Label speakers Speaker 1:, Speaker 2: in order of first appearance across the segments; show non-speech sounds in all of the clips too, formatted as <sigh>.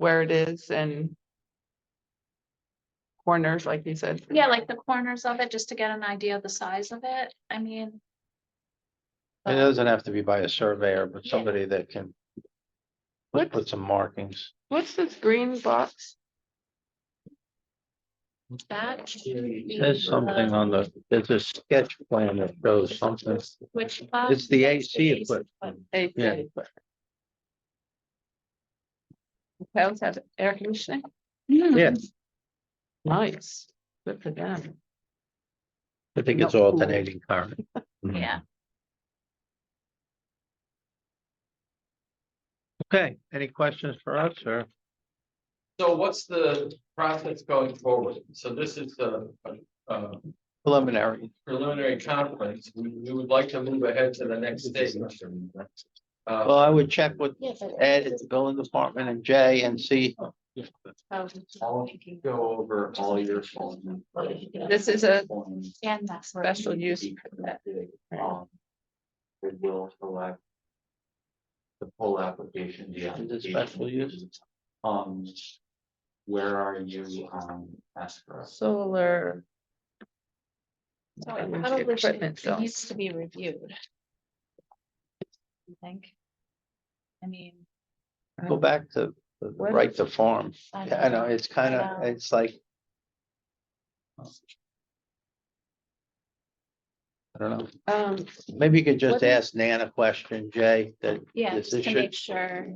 Speaker 1: where it is and corners, like you said.
Speaker 2: Yeah, like the corners of it, just to get an idea of the size of it. I mean.
Speaker 3: It
Speaker 2: um,
Speaker 3: doesn't have to be by a surveyor, but
Speaker 2: Yeah.
Speaker 3: somebody that can. Put,
Speaker 1: What-
Speaker 3: put some markings.
Speaker 1: What's this green box?
Speaker 2: That should be
Speaker 3: There's something on the, there's a sketch plan that shows something.
Speaker 2: Which.
Speaker 3: It's the AC equipment.
Speaker 1: Hey,
Speaker 3: Yeah.
Speaker 1: hey, but- Hotels have air conditioning?
Speaker 2: Hmm.
Speaker 3: Yeah,
Speaker 1: Nice, good for them.
Speaker 3: I think it's
Speaker 1: No.
Speaker 3: alternating current.
Speaker 2: Yeah,
Speaker 3: Okay, any questions for us, sir?
Speaker 4: So what's the process going forward? So this is the uh,
Speaker 3: Preliminary.
Speaker 4: preliminary conference. We, we would like to move ahead to the next stage.
Speaker 3: Well,
Speaker 4: Uh,
Speaker 3: I would check with
Speaker 2: yeah. but-
Speaker 3: Ed at the building department and Jay and see,
Speaker 2: Oh,
Speaker 4: I'll go over all your.
Speaker 1: This is a
Speaker 2: And that's. where-
Speaker 1: special use.
Speaker 4: Um, It will select. The full application. the
Speaker 3: Is it
Speaker 4: application.
Speaker 3: special use?
Speaker 4: Um. Where are you, um, ask for us?
Speaker 1: solar.
Speaker 2: So it
Speaker 1: Equipment,
Speaker 2: probably should,
Speaker 1: equipment, so-
Speaker 2: it needs to be reviewed. I think. I mean.
Speaker 3: go back to the the
Speaker 1: What
Speaker 3: right to farm. I know, it's kind of,
Speaker 2: Yeah.
Speaker 3: it's like. I don't know.
Speaker 1: Um,
Speaker 3: Maybe you could just
Speaker 2: What-
Speaker 3: ask Nan a question, Jay, that
Speaker 2: Yeah,
Speaker 3: This
Speaker 2: just to
Speaker 3: should-
Speaker 2: make sure.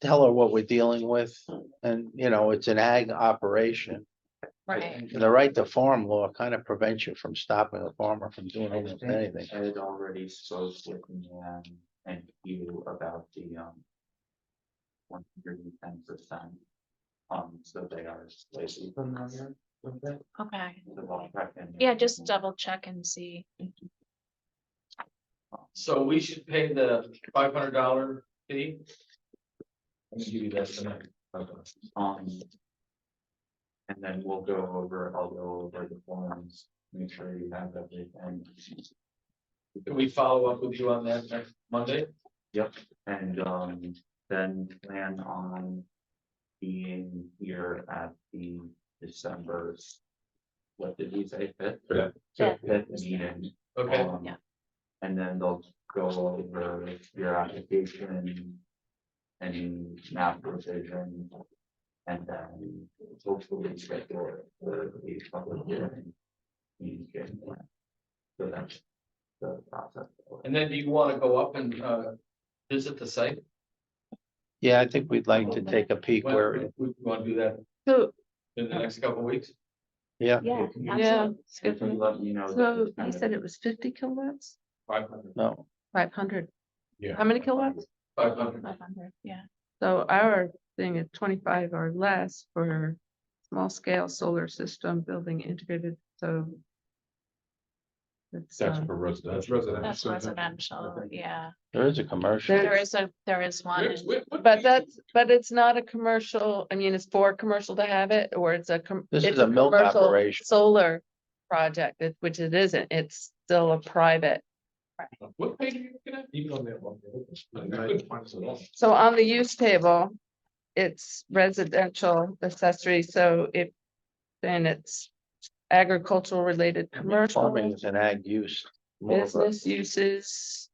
Speaker 3: tell her what we're dealing with. And, you know, it's an ag operation.
Speaker 2: Right.
Speaker 3: And the right to farm law kind of prevents you from stopping a farmer from doing
Speaker 4: I
Speaker 3: almost
Speaker 4: think
Speaker 3: anything.
Speaker 4: I had already spoke with Nan and you about the um. One hundred and ten percent. Um, so they are slightly familiar with that.
Speaker 2: Okay.
Speaker 4: the law back in-
Speaker 2: Yeah, just uh, double check and see.
Speaker 4: So we should pay the five hundred dollar fee? Let me give you that tonight. Um. And then we'll go over, I'll go over the forms, make sure you have everything. Can we follow up with you on that next Monday? Yep, and um, then plan on being here at the December's. What did we say, fifth?
Speaker 2: Fifth.
Speaker 4: Fifth meeting.
Speaker 5: Okay,
Speaker 4: Um,
Speaker 2: Yeah.
Speaker 4: And then they'll go over your application. And map revision. And then hopefully schedule the the public hearing. in January. So that's the process.
Speaker 5: and then do you wanna go up and uh visit the site?
Speaker 3: Yeah, I think we'd like to take a peek
Speaker 5: When-
Speaker 3: where,
Speaker 5: We we wanna do that
Speaker 1: so,
Speaker 5: in the next couple of weeks?
Speaker 3: yeah,
Speaker 2: Yeah.
Speaker 1: yeah. it's
Speaker 4: If
Speaker 1: good
Speaker 4: you
Speaker 1: for-
Speaker 4: let me know.
Speaker 1: So you said it was fifty kilowatts,
Speaker 5: Five hundred.
Speaker 3: no,
Speaker 1: five hundred.
Speaker 5: Yeah.
Speaker 1: How many kilowatts?
Speaker 5: Five hundred.
Speaker 2: Five hundred, yeah.
Speaker 1: So our thing is twenty-five or less for small scale solar system building integrated, so. It's,
Speaker 6: That's
Speaker 1: uh,
Speaker 6: for residential.
Speaker 5: That's residential.
Speaker 2: That's residential, yeah.
Speaker 3: there is a commercial.
Speaker 2: There is a, there is one.
Speaker 5: Where's- where- what
Speaker 1: but
Speaker 5: is-
Speaker 1: that's, but it's not a commercial, I mean, it's for commercial to have it, or it's a. com-
Speaker 3: This
Speaker 1: it's
Speaker 3: is a milk
Speaker 1: commercial
Speaker 3: operation.
Speaker 1: Solar project, it- which it isn't, it's still a private.
Speaker 5: What page are you looking at? Even on that one. I couldn't find it at all.
Speaker 1: So on the use table, it's residential accessory, so if, then it's agricultural related
Speaker 3: Farming
Speaker 1: commercial,
Speaker 3: is an ag use. more of a-
Speaker 1: business uses.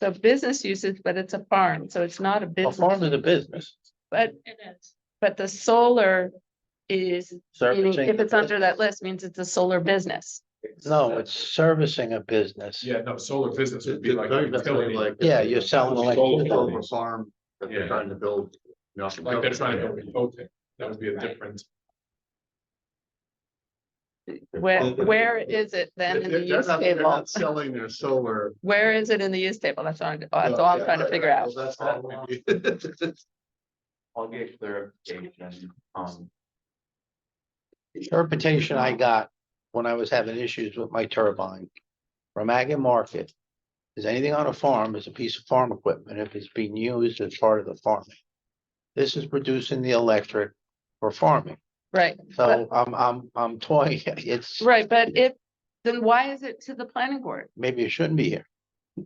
Speaker 1: So business uses, but it's a farm, so it's not a
Speaker 3: A farm
Speaker 1: business,
Speaker 3: is a business.
Speaker 1: but,
Speaker 2: It is.
Speaker 1: but the solar is, meaning
Speaker 3: servicing
Speaker 1: if
Speaker 3: the
Speaker 1: it's under
Speaker 3: business.
Speaker 1: that list, means it's a solar business.
Speaker 3: No, it's servicing a business.
Speaker 6: Yeah, no, solar business would be
Speaker 5: It's
Speaker 6: like.
Speaker 5: very
Speaker 6: a utility,
Speaker 5: like-
Speaker 3: Yeah, you're selling
Speaker 6: Solar
Speaker 3: electricity.
Speaker 6: farm,
Speaker 5: farm
Speaker 6: that they're trying
Speaker 5: to build. Like they're trying to build a hotel. that would be a
Speaker 2: Right.
Speaker 5: different.
Speaker 1: Where, where is it then in the use table?
Speaker 5: selling their solar.
Speaker 1: Where is it in the use table? That's what I'm, that's all I'm trying to figure out.
Speaker 4: I'll get clarification, um,
Speaker 3: Interpretation I got when I was having issues with my turbine. From Ag and Market. Is anything on a farm is a piece of farm equipment if it's being used as part of the farming. This is producing the electric for farming.
Speaker 1: Right,
Speaker 3: So I'm, I'm, I'm toying, <laughs> it's,
Speaker 1: right, but if, then why is it to the planning board?
Speaker 3: maybe it shouldn't be here.